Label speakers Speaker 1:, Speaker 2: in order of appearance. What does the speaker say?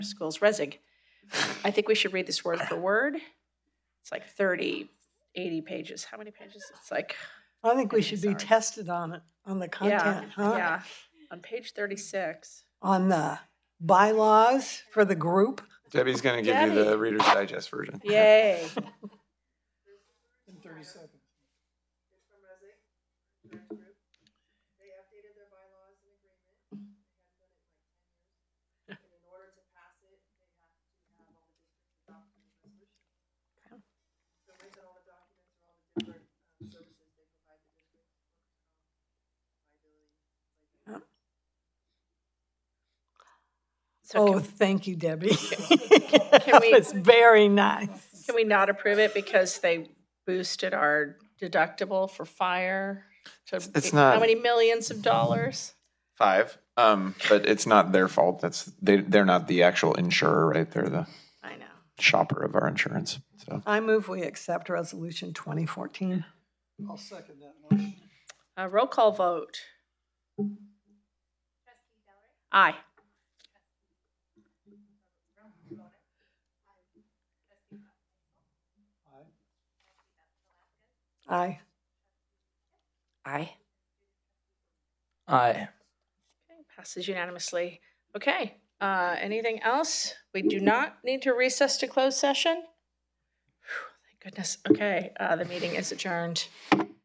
Speaker 1: schools, resig. I think we should read this word for word. It's like 30, 80 pages. How many pages? It's like,
Speaker 2: I think we
Speaker 1: Okay,
Speaker 2: should be
Speaker 1: sorry.
Speaker 2: tested on it, on the
Speaker 1: yeah,
Speaker 2: content, huh?
Speaker 1: yeah. On page 36.
Speaker 2: On the bylaws for the group.
Speaker 3: Debbie's going to give you
Speaker 1: Debbie.
Speaker 3: the Reader's Digest version.
Speaker 1: Yay.
Speaker 2: In thirty seconds.
Speaker 4: They updated their bylaws and agreement. They hadn't done it in like ten years. And in order to pass it, they have to have all the districts adopt the resolution. So based on all the documents and all the different um, services they provide the district. Liability.
Speaker 1: So
Speaker 2: Oh,
Speaker 1: can-
Speaker 2: thank you, Debbie.
Speaker 1: can we-
Speaker 2: It's very nice.
Speaker 1: can we not approve it because they boosted our deductible for fire? to-
Speaker 3: it's
Speaker 1: How
Speaker 3: not-
Speaker 1: many millions of dollars?
Speaker 3: Five. Um, but it's not their fault. That's they. They're not the actual insurer, right? They're the
Speaker 1: I know.
Speaker 3: shopper of our insurance. So
Speaker 2: I move we accept resolution twenty fourteen. I'll second that motion.
Speaker 1: Uh, roll call vote. Aye.
Speaker 2: Aye.
Speaker 1: Aye.
Speaker 5: Aye.
Speaker 1: Okay, Passes unanimously. Okay, uh, anything else? We do not need to recess to close session? Phew, Thank goodness. Okay, uh, the meeting is adjourned.